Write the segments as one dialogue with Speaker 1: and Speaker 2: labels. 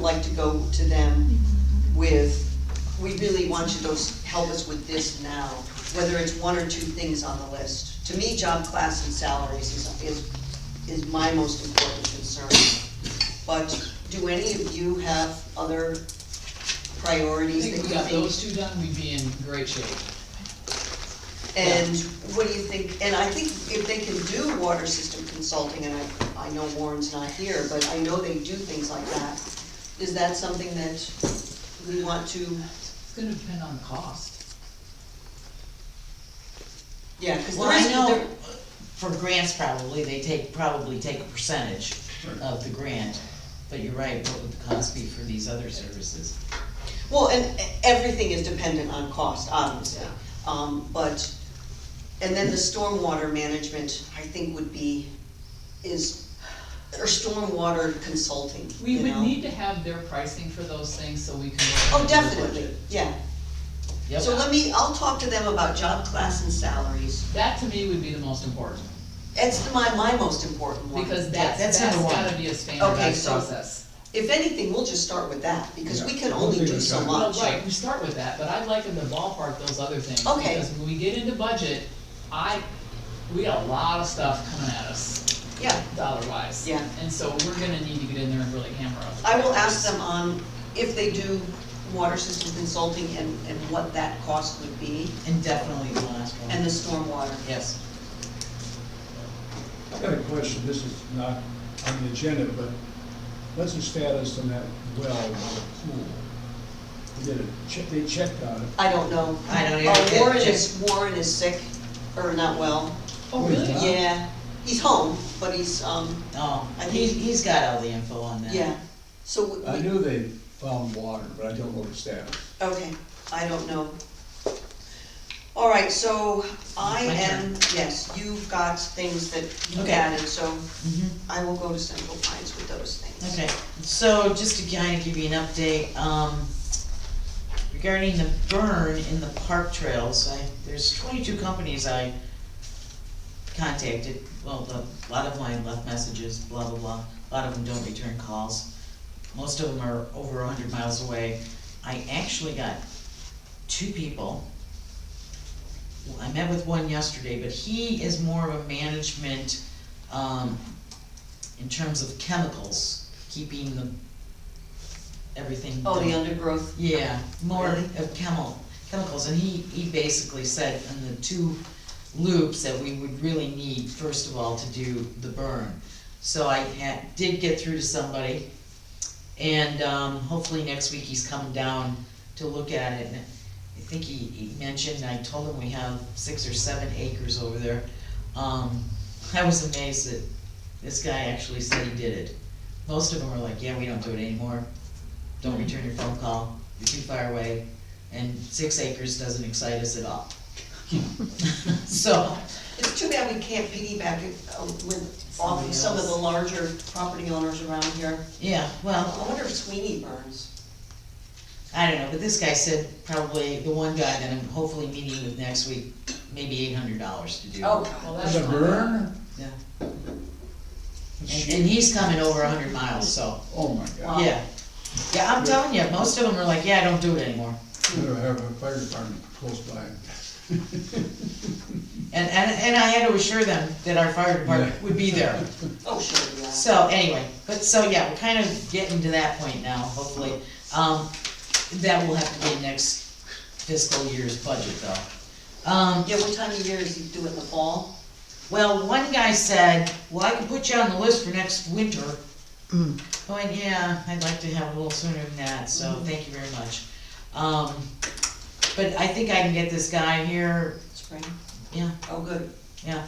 Speaker 1: like to go to them with, we really want you to help us with this now, whether it's one or two things on the list. To me, job class and salaries is, is, is my most important concern. But do any of you have other
Speaker 2: I
Speaker 1: priorities that you think?
Speaker 2: think we got those two done, we'd be in great shape.
Speaker 1: And what do you think, and I think if they can do water system consulting, and I, I know Warren's not here, but I know they do things like that. Is that something that we want to,
Speaker 2: It's gonna depend on the cost.
Speaker 1: yeah, cause
Speaker 3: Well,
Speaker 1: there
Speaker 3: I
Speaker 1: is,
Speaker 3: know,
Speaker 1: there,
Speaker 3: for grants probably, they take, probably take a percentage of the grant, but you're right, what would the cost be for these other services?
Speaker 1: well, and everything is dependent on cost, obviously. Um, but, and then the stormwater management, I think would be, is, or stormwater consulting,
Speaker 2: We
Speaker 1: you
Speaker 2: would
Speaker 1: know?
Speaker 2: need to have their pricing for those things so we can.
Speaker 1: Oh, definitely, yeah.
Speaker 3: Yep.
Speaker 1: So let me, I'll talk to them about job class and salaries.
Speaker 2: That to me would be the most important,
Speaker 1: It's the- my, my most important one.
Speaker 2: because that's,
Speaker 3: that's
Speaker 2: that's
Speaker 3: number one.
Speaker 2: gotta be a
Speaker 1: Okay,
Speaker 2: standardized
Speaker 1: so-
Speaker 2: process.
Speaker 1: If anything, we'll just start with that, because we can
Speaker 4: Yeah.
Speaker 1: only
Speaker 4: We'll
Speaker 1: do
Speaker 4: figure
Speaker 1: so
Speaker 4: it out.
Speaker 2: Well,
Speaker 1: much.
Speaker 2: right, we start with that, but I'd like in the ballpark those other things.
Speaker 1: Okay.
Speaker 2: Because when we get into budget, I, we got a lot of stuff coming at us,
Speaker 1: Yeah,
Speaker 2: dollar wise.
Speaker 1: Yeah.
Speaker 2: And so we're gonna need to get in there and really hammer out. the
Speaker 1: I will
Speaker 2: prices.
Speaker 1: ask them on if they do water system consulting and, and what that cost would be,
Speaker 3: And definitely the last one.
Speaker 1: and the stormwater.
Speaker 3: Yes.
Speaker 4: I got a question, this is not on the agenda, but what's the status on that well on the pool? They did a check, they checked on it.
Speaker 1: I don't know.
Speaker 3: I don't
Speaker 1: Uh,
Speaker 3: either.
Speaker 1: Warren is, Warren is sick, or not well.
Speaker 2: Oh, really?
Speaker 4: Huh?
Speaker 1: Yeah, he's home, but he's, um,
Speaker 3: Oh,
Speaker 1: I
Speaker 3: he,
Speaker 1: think-
Speaker 3: he's got all the info on that.
Speaker 1: yeah, so. we-
Speaker 4: I knew they found water, but I don't know the status.
Speaker 1: Okay, I don't know. All right, so I
Speaker 3: My
Speaker 1: am,
Speaker 3: turn.
Speaker 1: yes, you've got things that you
Speaker 3: Okay.
Speaker 1: added, so
Speaker 3: Mhm.
Speaker 1: I will go to Central Pines with those things.
Speaker 3: Okay, so just to kind of give you an update, um, regarding the burn in the park trails, I, there's twenty-two companies I contacted, well, the, a lot of them I left messages, blah, blah, blah, a lot of them don't return calls. Most of them are over hundred miles away. I actually got two people. I met with one yesterday, but he is more of a management, um, in terms of chemicals, keeping the, everything.
Speaker 1: Oh, the
Speaker 3: done.
Speaker 1: undergrowth,
Speaker 3: Yeah, more
Speaker 1: Really?
Speaker 3: of chemical, chemicals, and he, he basically said in the two loops that we would really need, first of all, to do the burn. So I had, did get through to somebody, and, um, hopefully next week he's coming down to look at it. And I think he, he mentioned, I told him we have six or seven acres over there. Um, I was amazed that this guy actually said he did it. Most of them were like, yeah, we don't do it anymore, don't return your phone call, you're too far away, and six acres doesn't excite us at all. So,
Speaker 1: it's too bad we can't piggyback it uh, with, off of some of the larger property owners around here.
Speaker 3: yeah, well,
Speaker 1: I wonder if Sweeney burns.
Speaker 3: I don't know, but this guy said probably, the one guy that I'm hopefully meeting with next week, maybe eight hundred dollars to do.
Speaker 1: Oh.
Speaker 2: Well, that's
Speaker 4: There's a
Speaker 2: not
Speaker 4: burn?
Speaker 3: Yeah. And, and
Speaker 4: Shoot.
Speaker 3: he's coming over hundred miles, so,
Speaker 4: Oh my
Speaker 1: Wow.
Speaker 4: God.
Speaker 3: yeah. Yeah, I'm telling you, most of them are like, yeah, I don't do it anymore.
Speaker 4: Better have a fire department close by.
Speaker 3: And, and, and I had to assure them that our fire department would be there.
Speaker 1: Oh, sure, yeah.
Speaker 3: So anyway, but so yeah, we're kind of getting to that point now, hopefully. Um, that will have to be next fiscal year's budget though. Um,
Speaker 1: Yeah, what time of year is he do it in the fall?
Speaker 3: well, one guy said, well, I can put you on the list for next winter. I went, yeah, I'd like to have a little sooner than that, so thank you very much. Um, but I think I can get this guy here,
Speaker 1: Spring?
Speaker 3: yeah,
Speaker 1: Oh, good.
Speaker 3: yeah,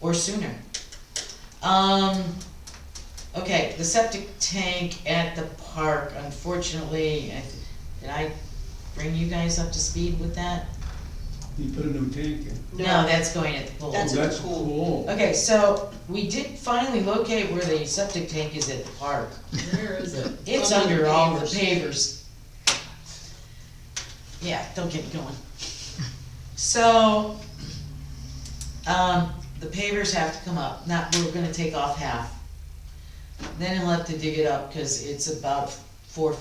Speaker 3: or sooner. Um, okay, the septic tank at the park, unfortunately, I th- did I bring you guys up to speed with that?
Speaker 4: You put a new tank in.
Speaker 3: No, that's going at the pool.
Speaker 1: That's
Speaker 4: Oh,
Speaker 1: a
Speaker 4: that's
Speaker 1: pool.
Speaker 4: cool.
Speaker 3: Okay, so we did finally locate where the septic tank is at the park.
Speaker 2: Where is it?
Speaker 3: It's under all the pavers. Yeah, don't get me going. So, um, the pavers have to come up, not, we're gonna take off half. Then he'll have to dig it up, cause it's about four